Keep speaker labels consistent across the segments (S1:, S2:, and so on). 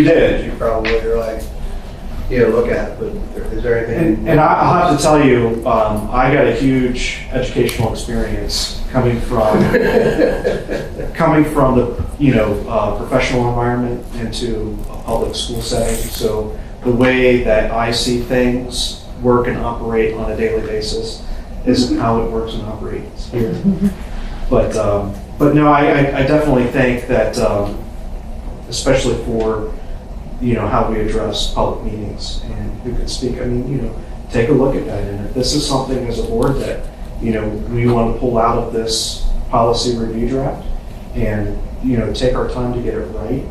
S1: You did.
S2: You probably are like, you know, look at, it, but is there anything?
S1: And, and I- I'll have to tell you, um, I got a huge educational experience coming from, coming from the, you know, uh, professional environment into a public school setting. So the way that I see things work and operate on a daily basis isn't how it works and operates here. But, um, but no, I, I- I definitely think that, um, especially for, you know, how we address public meetings and who can speak. I mean, you know, take a look at that. And if this is something as a board that, you know, we want to pull out of this policy review draft and, you know, take our time to get it right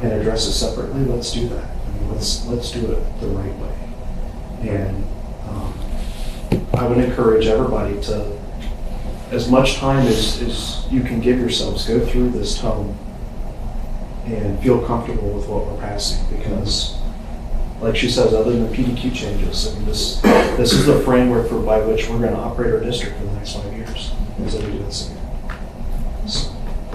S1: and address it separately, let's do that. I mean, let's, let's do it the right way. And um, I would encourage everybody to, as much time as, as you can give yourselves, go through this tome and feel comfortable with what we're passing because, like she says, other than the PDQ changes, I mean, this, this is the framework for by which we're going to operate our district for the next five years. Is that we do this again. So,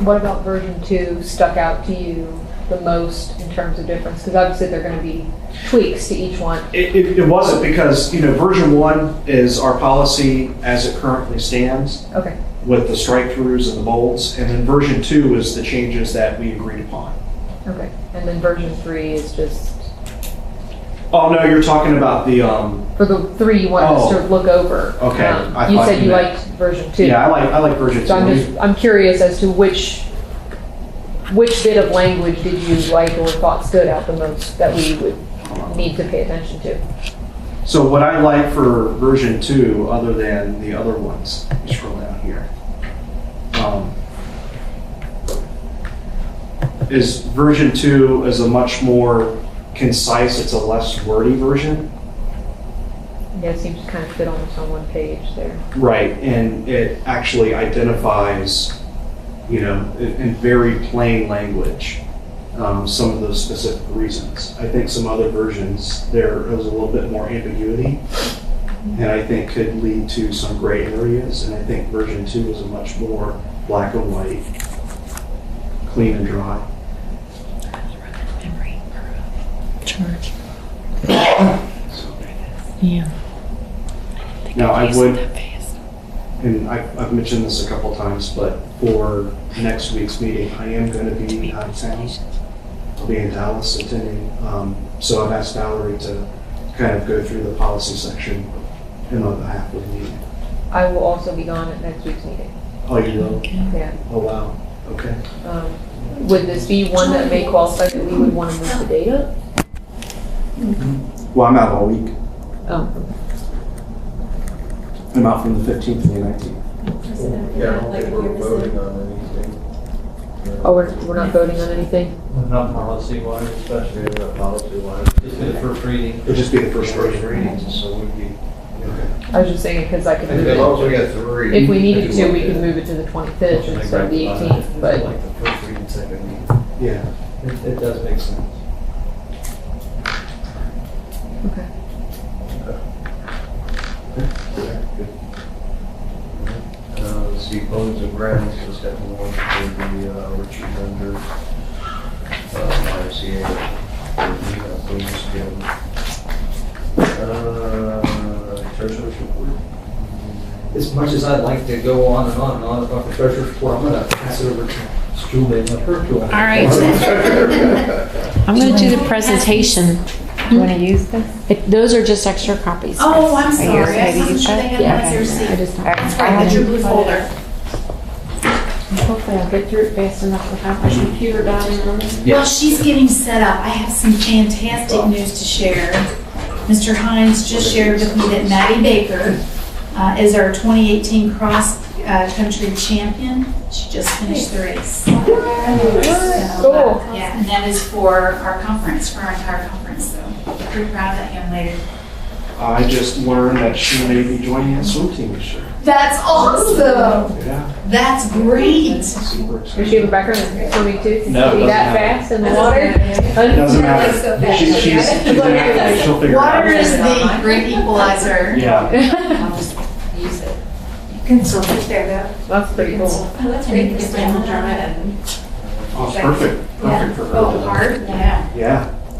S3: What about version two stuck out to you the most in terms of difference? Because obviously there are going to be tweaks to each one.
S1: It, it, it wasn't because, you know, version one is our policy as it currently stands
S3: Okay,
S1: with the strike throughs and the bolds. And then version two is the changes that we agreed upon.
S3: okay. And then version three is just,
S1: Oh, no, you're talking about the, um,
S3: for the three you want us to look over.
S1: Oh. Okay,
S3: Um,
S1: I
S3: You
S1: thought
S3: said
S1: you
S3: you
S1: meant-
S3: liked version two.
S1: yeah, I like, I like version two.
S3: So I'm just, I'm curious as to which, which bit of language did you like or thought stood out the most that we would need to pay attention to?
S1: So what I like for version two, other than the other ones, scroll down here, um, is version two is a much more concise, it's a less wordy version. Mm-hmm.
S3: Yeah, it seems to kind of fit almost on one page there.
S1: Right. And it actually identifies, you know, in in very plain language, um, some of those specific reasons. I think some other versions, there was a little bit more ambiguity, and I think could lead to some gray areas. And I think version two is a much more black and white, clean and dry.
S4: Charge.
S1: So,
S4: Yeah.
S1: Now, I
S4: Use
S1: would
S4: that face.
S1: and I- I've mentioned this a couple times, but for next week's meeting, I am going to be out of town. I'll be in Dallas attending, um, so I've asked Valerie to kind of go through the policy section in the half of the meeting.
S3: I will also be gone at next week's meeting.
S1: Oh, you will?
S3: Yeah.
S1: Oh, wow. Okay.
S3: Um, Would this be one that may qualify that we would want to move the date up?
S1: Well, I'm out all week.
S3: Oh,
S1: I'm out from the 15th to the 19th.
S2: Yeah, I don't think we're voting on anything.
S3: oh, we're, we're not voting on anything?
S5: Not policy wise, especially,
S2: Maybe not policy wise.
S5: just the first reading.
S1: It'll just be the first version reading.
S2: So we'd be,
S3: I was just saying because I could
S2: as
S3: move
S2: long as we
S3: it.
S2: got three.
S3: If we needed to, we could move it to the 25th instead of the 18th, but
S2: Like the first reading, second reading.
S1: Yeah.
S5: It, it does make sense.
S2: Uh, let's see, bones and grounds, let's have one for the, uh, Richard Bender, uh, YMCA, for the, uh, Bones Gym. Uh, treasurer's report?
S5: As much as I'd like to go on and on and on about the treasurer's report, I'm gonna pass it over to Julie and let her go on.
S4: All right. I'm going to do the presentation.
S6: You want to use this?
S4: It- Those are just extra copies.
S6: Oh, I'm
S4: Are you
S6: sorry.
S4: okay
S6: I
S4: to
S6: wasn't
S4: use
S6: sure
S4: that?
S6: they had
S4: Yeah,
S6: one as
S4: okay.
S6: your seat.
S4: I just-
S6: That's right, that's your blue folder.
S4: Hopefully I'll get through it fast enough without my computer dying on me.
S6: While she's getting set up, I have some fantastic news to share. Mr. Hines just shared with me that Maddie Baker uh, is our 2018 cross-country uh, champion. She just finished the race. So,
S3: Cool.
S6: uh, Yeah, and that is for our conference, for our entire conference, so pretty proud of that young lady.
S1: I just learned that she may be joining a swim team this year.
S6: That's awesome!
S1: Yeah.
S6: That's great!
S1: Super
S3: does she have a
S1: excited.
S3: background in swimming too? Can
S1: No,
S3: she be
S1: doesn't
S3: that
S1: matter.
S3: fast in the water?
S1: Doesn't matter. She- She's, she's, she'll figure it out.
S6: Water is the great equalizer.
S1: Yeah.
S6: I'll just use it. You can still sit there oh,
S3: That's pretty cool.
S6: though. I like to make this down.
S1: Oh, it's perfect,
S6: Yeah.
S1: perfect for
S6: Oh,
S1: her.
S6: hard, yeah.
S1: Yeah,